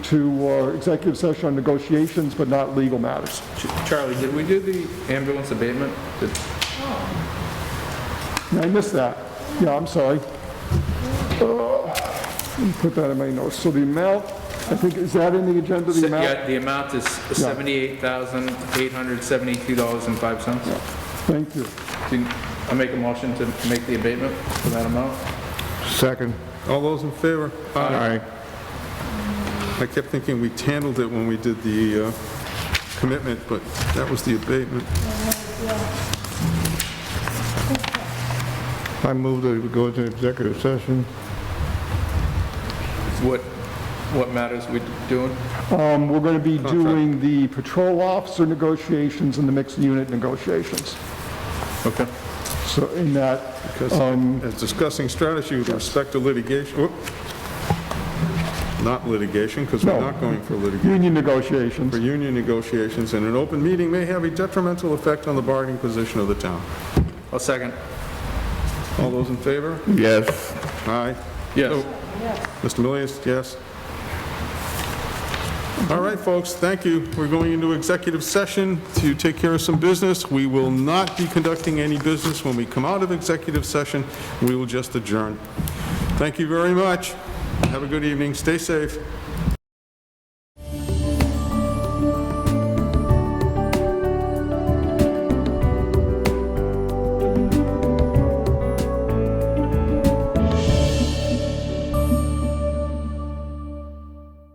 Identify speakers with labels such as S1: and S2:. S1: to uh, executive session on negotiations, but not legal matters.
S2: Ch- Charlie, did we do the ambulance abatement? Did-
S1: I missed that. Yeah, I'm sorry. Uh, Let me put that in my notes. So the amount, I think, is that in the agenda, the amount?
S2: Yeah, the amount is $78,872.05.
S1: Thank you.
S2: Can I make a motion to make the abatement for that amount?
S3: Second.
S4: All those in favor?
S3: Aye.
S4: I kept thinking we handled it when we did the uh, commitment, but that was the abatement.
S3: I move that we go into executive session.
S2: What, what matters we doing?
S1: Um, We're going to be doing the patrol officer negotiations and the mixed unit negotiations.
S2: Okay.
S1: So in that,
S4: Because
S3: Um,
S4: as discussing strategy with respect to litigation, whoop. not litigation, because we're
S1: No.
S4: not going for litigation,
S1: union
S4: for
S1: negotiations.
S4: union negotiations, and an open meeting may have a detrimental effect on the bargaining position of the town.
S2: I'll second.
S4: All those in favor?
S3: Yes.
S4: Aye.
S2: Yes.
S4: Mr. Millius, yes? All right, folks, thank you. We're going into executive session to take care of some business. We will not be conducting any business when we come out of executive session. We will just adjourn. Thank you very much. Have a good evening. Stay safe.